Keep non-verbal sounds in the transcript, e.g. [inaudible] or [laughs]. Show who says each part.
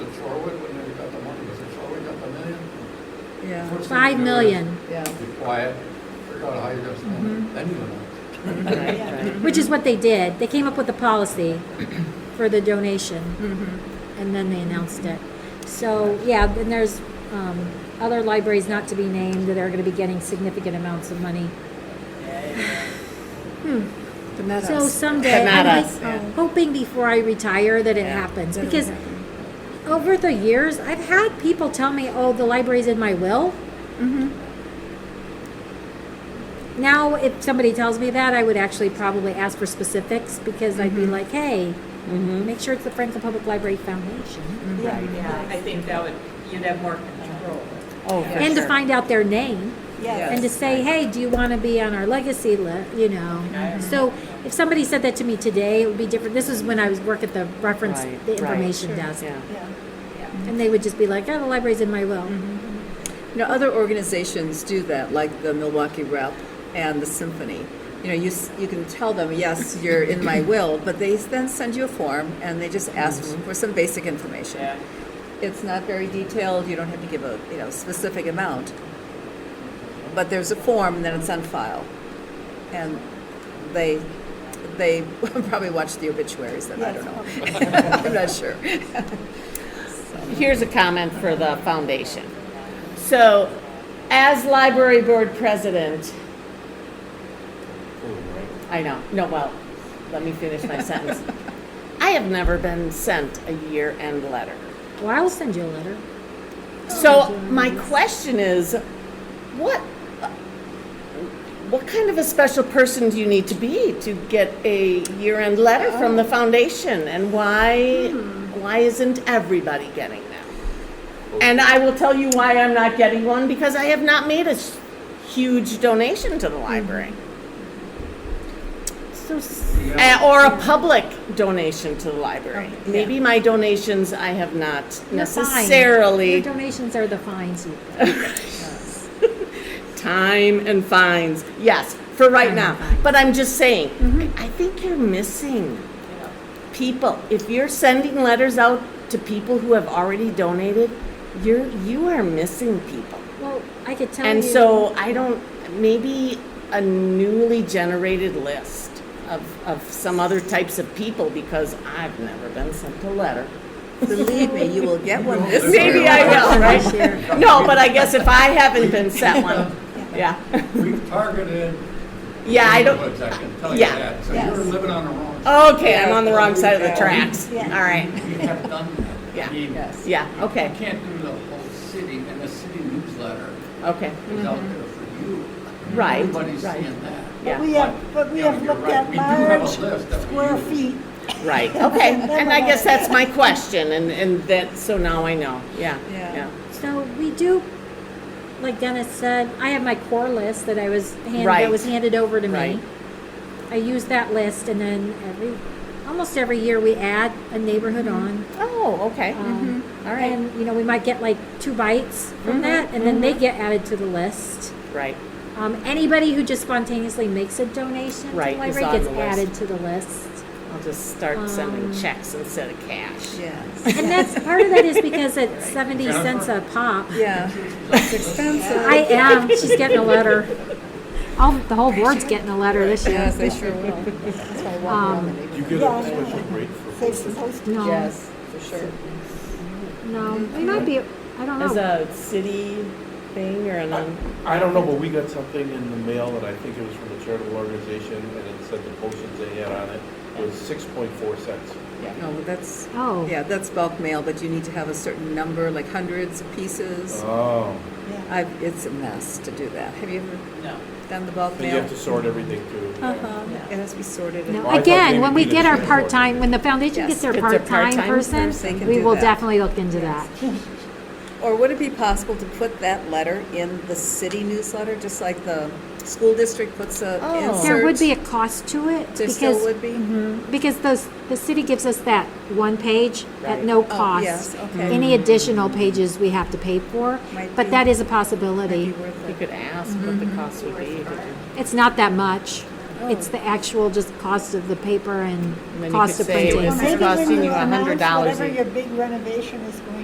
Speaker 1: Yeah.
Speaker 2: What's the-
Speaker 3: Five million,
Speaker 1: Yeah.
Speaker 2: Be quiet, figure out how you're gonna spend it, then you know.
Speaker 3: which is what they did. They came up with a policy for the donation.
Speaker 1: Mm-hmm.
Speaker 3: and then they announced it. So, yeah, then there's um, other libraries not to be named that are going to be getting significant amounts of money.
Speaker 1: But not
Speaker 3: So
Speaker 1: us.
Speaker 3: someday,
Speaker 4: But not
Speaker 3: I'm
Speaker 4: us,
Speaker 3: like,
Speaker 1: yeah.
Speaker 3: hoping before I retire that it
Speaker 4: Yeah.
Speaker 3: happens.
Speaker 1: That'll
Speaker 3: Because
Speaker 1: happen.
Speaker 3: over the years, I've had people tell me, oh, the library's in my will.
Speaker 4: Mm-hmm.
Speaker 3: Now, if somebody tells me that, I would actually probably ask for specifics because I'd
Speaker 4: Mm-hmm.
Speaker 3: be like, hey, make sure it's the Franklin Public Library Foundation.
Speaker 5: Right, yeah, I think that would, you'd have more control.
Speaker 4: Oh, for
Speaker 3: And to
Speaker 4: sure.
Speaker 3: find out their name.
Speaker 1: Yes.
Speaker 3: and to say, hey, do you want to be on our legacy list? You know. So if somebody said that to me today, it would be different. This was when I was work at the reference,
Speaker 4: Right,
Speaker 3: the
Speaker 4: right,
Speaker 3: information desk,
Speaker 4: Yeah. Mm-hmm.
Speaker 1: Yeah.
Speaker 3: and they would just be like, oh, the library's in my will.
Speaker 1: You know, other organizations do that, like the Milwaukee Rep and the Symphony. You know, you, s- you can tell them, yes, you're in my will, but they then send you a form and they just ask for some basic information.
Speaker 5: Yeah.
Speaker 1: It's not very detailed, you don't have to give a, you know, specific amount. But there's a form and then it's on file. And they, they [laughs] probably watch the obituaries then, I don't know. [laughs] I'm not sure.
Speaker 4: Here's a comment for the foundation. So, as library board president, I know, no, well, let me finish
Speaker 5: [laughs]
Speaker 4: my sentence. I have never been sent a year-end letter.
Speaker 3: Well, I'll send you a letter.
Speaker 4: So, my question is, what, what kind of a special person do you need to be to get a year-end letter from the foundation? And why,
Speaker 3: Hmm.
Speaker 4: why isn't everybody getting them? And I will tell you why I'm not getting one, because I have not made a s- huge donation to the library.
Speaker 3: So s-
Speaker 4: Uh, Or a public donation to the library. Maybe my donations I have not
Speaker 3: you're fine.
Speaker 4: necessarily.
Speaker 3: your donations are the fines you pay.
Speaker 4: Time and fines, yes, for right now. But I'm just saying,
Speaker 3: Mm-hmm.
Speaker 4: I think you're missing people. If you're sending letters out to people who have already donated, you're, you are missing people.
Speaker 3: Well, I could tell
Speaker 4: And
Speaker 3: you.
Speaker 4: so I don't, maybe a newly generated list of, of some other types of people because I've never been sent a letter.
Speaker 1: Believe me, you will get one this year.
Speaker 4: Maybe I will,
Speaker 3: This
Speaker 4: right?
Speaker 3: year.
Speaker 4: No, but I guess if I haven't been
Speaker 3: [laughs]
Speaker 4: sent one, yeah.
Speaker 2: We've targeted.
Speaker 4: Yeah, I don't,
Speaker 2: neighborhoods, I can tell you
Speaker 4: yeah.
Speaker 2: that, so you're living on the wrong. side.
Speaker 4: Okay, I'm on the wrong side of the tracks. All right.
Speaker 2: We have done that.
Speaker 4: Yeah.
Speaker 2: I mean,
Speaker 1: Yes.
Speaker 4: Yeah,
Speaker 2: You
Speaker 4: okay,
Speaker 2: can't do the whole city, and the city newsletter
Speaker 4: okay.
Speaker 2: is out there for you.
Speaker 4: Right,
Speaker 2: Everybody's
Speaker 4: right.
Speaker 2: seeing that.
Speaker 4: Yeah.
Speaker 6: But we have, but we
Speaker 2: Yeah,
Speaker 6: have
Speaker 2: you're
Speaker 6: looked
Speaker 2: right.
Speaker 6: at
Speaker 2: We do have a
Speaker 6: large
Speaker 2: list that we
Speaker 6: square
Speaker 2: use.
Speaker 6: feet.
Speaker 4: Right, okay. And I guess that's my question and, and that, so now I know. Yeah,
Speaker 1: Yeah.
Speaker 4: yeah.
Speaker 3: So we do, like Dennis said, I have my core list that I was handed,
Speaker 4: Right.
Speaker 3: that was handed over to
Speaker 4: Right.
Speaker 3: me. I use that list and then every, almost every year we add a neighborhood on.
Speaker 4: Oh, okay.
Speaker 3: Um,
Speaker 4: All right. Mm-hmm.
Speaker 3: And, you know, we might get like two bites from that and then they get added to the list.
Speaker 4: Right,
Speaker 3: Um, anybody who just spontaneously makes a donation to the
Speaker 4: Right, is
Speaker 3: library
Speaker 4: on
Speaker 3: gets
Speaker 4: the list.
Speaker 3: added to the list.
Speaker 4: I'll just start sending
Speaker 3: Um,
Speaker 4: checks instead of cash.
Speaker 1: Yes.
Speaker 3: And that's, part of that is because it's seventy cents a pop.
Speaker 1: Yeah. It's expensive.
Speaker 3: I am, she's getting a letter. All, the whole board's getting a letter this year.
Speaker 1: Yes, they sure will. That's why I
Speaker 3: Um,
Speaker 1: want
Speaker 7: You get
Speaker 6: Yeah,
Speaker 7: a
Speaker 6: I know.
Speaker 7: special rate for
Speaker 6: Save some post.
Speaker 3: No.
Speaker 1: Yes, for sure.
Speaker 3: No, we might be, I don't
Speaker 4: As
Speaker 3: know.
Speaker 4: a city thing or a
Speaker 1: Uh,
Speaker 4: non?
Speaker 7: I don't know, but we got something in the mail that I think it was from a charitable organization and it said the postage they had on it was six point four cents.
Speaker 1: No, but that's,
Speaker 3: Oh.
Speaker 1: yeah, that's bulk mail, but you need to have a certain number, like hundreds of pieces.
Speaker 7: Oh.
Speaker 1: I, it's a mess to do that. Have you ever
Speaker 5: No.
Speaker 1: done the bulk
Speaker 7: And you
Speaker 1: mail?
Speaker 7: have to sort everything through.
Speaker 1: Uh-huh. It has to be sorted. and-
Speaker 3: No,
Speaker 7: Well, I thought maybe
Speaker 3: Again, when we
Speaker 7: we
Speaker 3: get
Speaker 7: did
Speaker 3: our
Speaker 7: it
Speaker 3: part-time, when the foundation
Speaker 1: Yes.
Speaker 3: gets their
Speaker 4: Gets their
Speaker 3: part-time
Speaker 4: part-time
Speaker 1: person,
Speaker 3: person,
Speaker 1: can
Speaker 3: we
Speaker 1: do
Speaker 3: will
Speaker 1: that.
Speaker 3: definitely look into that.
Speaker 1: Yes. Or would it be possible to put that letter in the city newsletter, just like the school district puts a
Speaker 4: Oh.
Speaker 1: insert?
Speaker 3: There would be a cost to it
Speaker 1: There still
Speaker 3: because,
Speaker 1: would be?
Speaker 3: because those, the city gives us that one page at no
Speaker 1: Oh,
Speaker 3: cost.
Speaker 1: yes, okay.
Speaker 3: Any additional pages we have to pay for,
Speaker 1: Might
Speaker 3: but
Speaker 1: be-
Speaker 3: that is a
Speaker 1: It'd be
Speaker 3: possibility.
Speaker 1: worth
Speaker 4: You
Speaker 1: it.
Speaker 4: could ask what the cost would be.
Speaker 3: It's not that much. It's the actual just cost of the paper and
Speaker 4: then you
Speaker 3: cost of
Speaker 4: could say it
Speaker 3: printing.
Speaker 4: was- It's costing you $100
Speaker 6: Whatever
Speaker 4: a-
Speaker 6: your big renovation is going